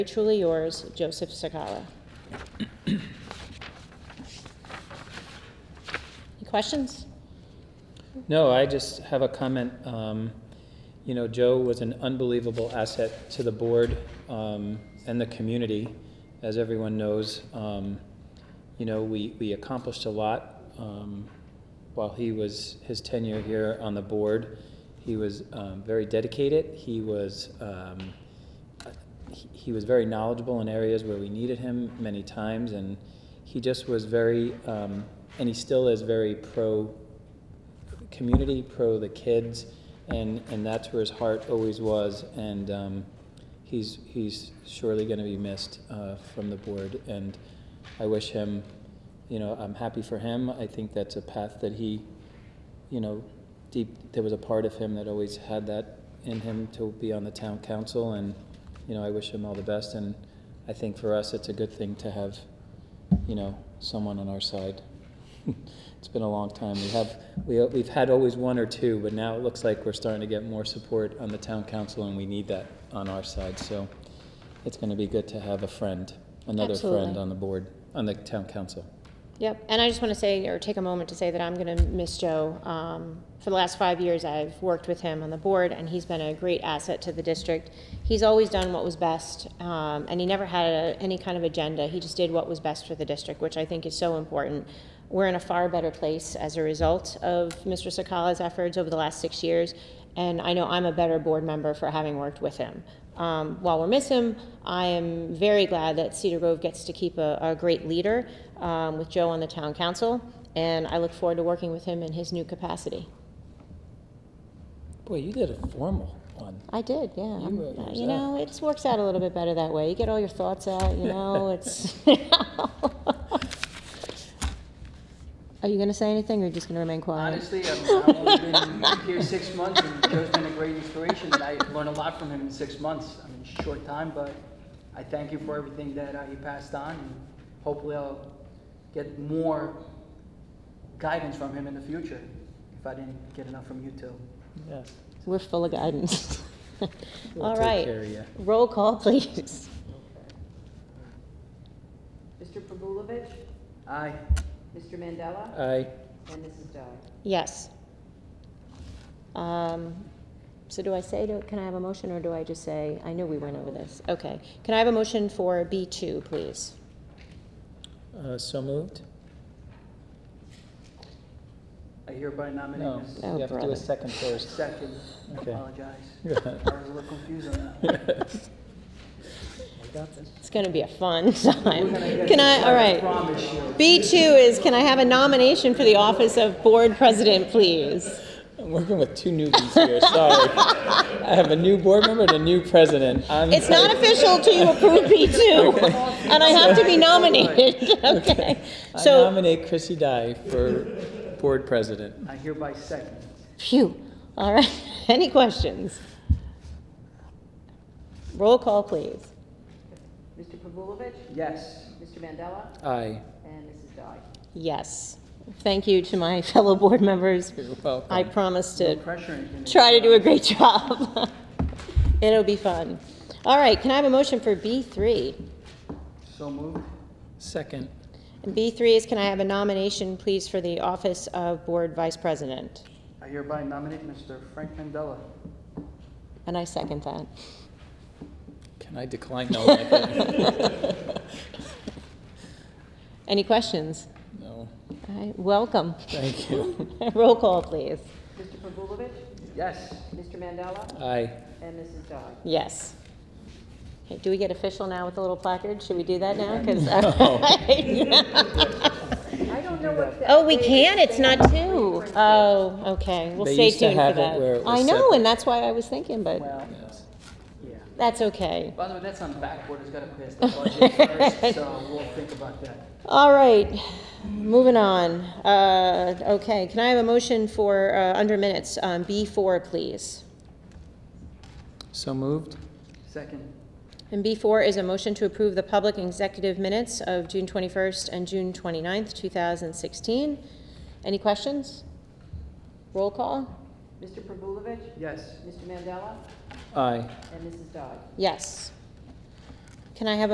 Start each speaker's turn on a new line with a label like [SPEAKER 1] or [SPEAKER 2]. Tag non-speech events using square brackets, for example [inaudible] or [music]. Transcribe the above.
[SPEAKER 1] Truly yours, Joseph Sakala. Any questions?
[SPEAKER 2] No, I just have a comment. Um, You know, Joe was an unbelievable asset to the board um, and the community, as everyone knows. Um, You know, we, we accomplished a lot um, while he was, his tenure here on the board. He was um, very dedicated. He was, um, he- he was very knowledgeable in areas where we needed him many times, and he just was very, um, and he still is very pro community, pro the kids, and, and that's where his heart always was. And um, he's, he's surely going to be missed uh, from the board. And I wish him, you know, I'm happy for him. I think that's a path that he, you know, deep, there was a part of him that always had that in him to be on the town council. And, you know, I wish him all the best. And I think for us, it's a good thing to have, you know, someone on our side. [laughs] it's been a long time. We have we, we've had always one or two, but now it looks like we're starting to get more support on the town council, and we need that on our side. So it's going to be good to have a friend, another friend
[SPEAKER 1] Absolutely.
[SPEAKER 2] on the board on the town council.
[SPEAKER 1] Yep, and I just want to say, or take a moment to say that I'm going to miss Joe. Um, For the last five years, I've worked with him on the board, and he's been a great asset to the district. He's always done what was best, um, and he never had a- any kind of agenda. He just did what was best for the district, which I think is so important. We're in a far better place as a result of Mr. Sakala's efforts over the last six years, and I know I'm a better board member for having worked with him. Um, while we miss him, I am very glad that Cedar Grove gets to keep a, a great leader um, with Joe on the town council, and I look forward to working with him in his new capacity.
[SPEAKER 2] Boy, you did a formal one.
[SPEAKER 1] I did, yeah. I'm-
[SPEAKER 2] wrote yours
[SPEAKER 1] you know, it just works out a little bit better that way. You get all your thoughts out, you
[SPEAKER 2] [laughs]
[SPEAKER 1] know, it's. [laughs] Are you going to say anything or you just going to remain quiet?
[SPEAKER 3] Honestly, I've I've only been here six months, and Joe's been a great inspiration, and I learned a lot from him in six months. I mean, short time, but I thank you for everything that uh, he passed on, and hopefully I'll get more guidance from him in the future, if I didn't get enough from you two.
[SPEAKER 2] Yeah.
[SPEAKER 1] We're full of guidance.
[SPEAKER 2] [laughs] We'll
[SPEAKER 1] All
[SPEAKER 2] take care
[SPEAKER 1] right.
[SPEAKER 2] of ya.
[SPEAKER 1] Roll call, please.
[SPEAKER 4] Mr. Pavulovich,
[SPEAKER 3] Aye,
[SPEAKER 4] Mr. Mandela,
[SPEAKER 2] I
[SPEAKER 4] and Mrs. Dye.
[SPEAKER 1] Yes. Um, So do I say, to- can I have a motion, or do I just say, I knew we went over this. Okay. Can I have a motion for B2, please?
[SPEAKER 2] uh, so moved.
[SPEAKER 3] I hereby nominate
[SPEAKER 2] No,
[SPEAKER 3] Mrs.
[SPEAKER 1] Oh,
[SPEAKER 2] you have to do
[SPEAKER 1] brother.
[SPEAKER 2] a second first. [laughs]
[SPEAKER 3] Second, I
[SPEAKER 2] Okay.
[SPEAKER 3] apologize. I was a little confused on
[SPEAKER 2] [laughs]
[SPEAKER 3] that.
[SPEAKER 1] It's going to be a fun [laughs] time.
[SPEAKER 3] We're gonna get
[SPEAKER 1] Can I,
[SPEAKER 3] this
[SPEAKER 1] all right.
[SPEAKER 3] right, I promise you.
[SPEAKER 1] B2 is, can I have a nomination for the office of Board President, please?
[SPEAKER 2] I'm working with two newbies here. Sorry, [laughs] I have a new board member and a new president. I'm
[SPEAKER 1] It's not official till you approve B2, and I have to be nominated, [laughs] okay?
[SPEAKER 2] I
[SPEAKER 1] So,
[SPEAKER 2] nominate Chrissy Dye for board president.
[SPEAKER 3] I hereby second.
[SPEAKER 1] phew, all right, [laughs] any questions? Roll call, please.
[SPEAKER 4] Mr. Pavulovich,
[SPEAKER 3] Yes.
[SPEAKER 4] Mr. Mandela,
[SPEAKER 2] Aye.
[SPEAKER 4] and Mrs. Dye.
[SPEAKER 1] Yes. Thank you to my [laughs] fellow board members.
[SPEAKER 2] You're welcome.
[SPEAKER 1] I promise
[SPEAKER 3] No
[SPEAKER 1] to
[SPEAKER 3] pressure. in-
[SPEAKER 1] try to do a great [laughs] job. It'll be fun. All right, can I have a motion for B3?
[SPEAKER 3] So moved.
[SPEAKER 2] Second.
[SPEAKER 1] And B3 is, can I have a nomination, please, for the office of Board Vice President?
[SPEAKER 3] I hereby nominate Mr. Frank Mandela.
[SPEAKER 1] And I second that.
[SPEAKER 2] Can I decline? No. I
[SPEAKER 1] [laughs]
[SPEAKER 2] can't.
[SPEAKER 1] Any questions?
[SPEAKER 2] no.
[SPEAKER 1] All right, welcome. [laughs]
[SPEAKER 2] Thank you.
[SPEAKER 1] Roll call, please.
[SPEAKER 4] Mr. Pavulovich,
[SPEAKER 3] Yes.
[SPEAKER 4] Mr. Mandela,
[SPEAKER 2] Aye.
[SPEAKER 4] and Mrs. Dye.
[SPEAKER 1] Yes. Okay, Do we get official now with the little placard? Should we do that now? 'Cause- [laughs]
[SPEAKER 4] I don't know what
[SPEAKER 1] Oh, we can, it's not two. Oh, okay, we'll
[SPEAKER 2] They
[SPEAKER 1] stay
[SPEAKER 2] used to
[SPEAKER 1] tuned for
[SPEAKER 2] have it where
[SPEAKER 1] that.
[SPEAKER 2] it was
[SPEAKER 1] I know,
[SPEAKER 2] separate.
[SPEAKER 1] and that's why I was thinking, but
[SPEAKER 3] Well, yeah.
[SPEAKER 1] that's okay.
[SPEAKER 3] By the way, that's on backward, it's gotta pass the budget first, so we'll think about that.
[SPEAKER 1] All right, moving on. Uh, Okay, can I have a motion for, uh, under minutes, um, B4, please?
[SPEAKER 2] So moved.
[SPEAKER 3] Second,
[SPEAKER 1] And B4 is a motion to approve the public executive minutes of June 21st and June 29th, 2016. Any questions? Roll call?
[SPEAKER 4] Mr. Pavulovich,
[SPEAKER 3] yes.
[SPEAKER 4] Mr. Mandela,
[SPEAKER 2] Aye.
[SPEAKER 4] and Mrs. Dye.
[SPEAKER 1] Yes. Can I have a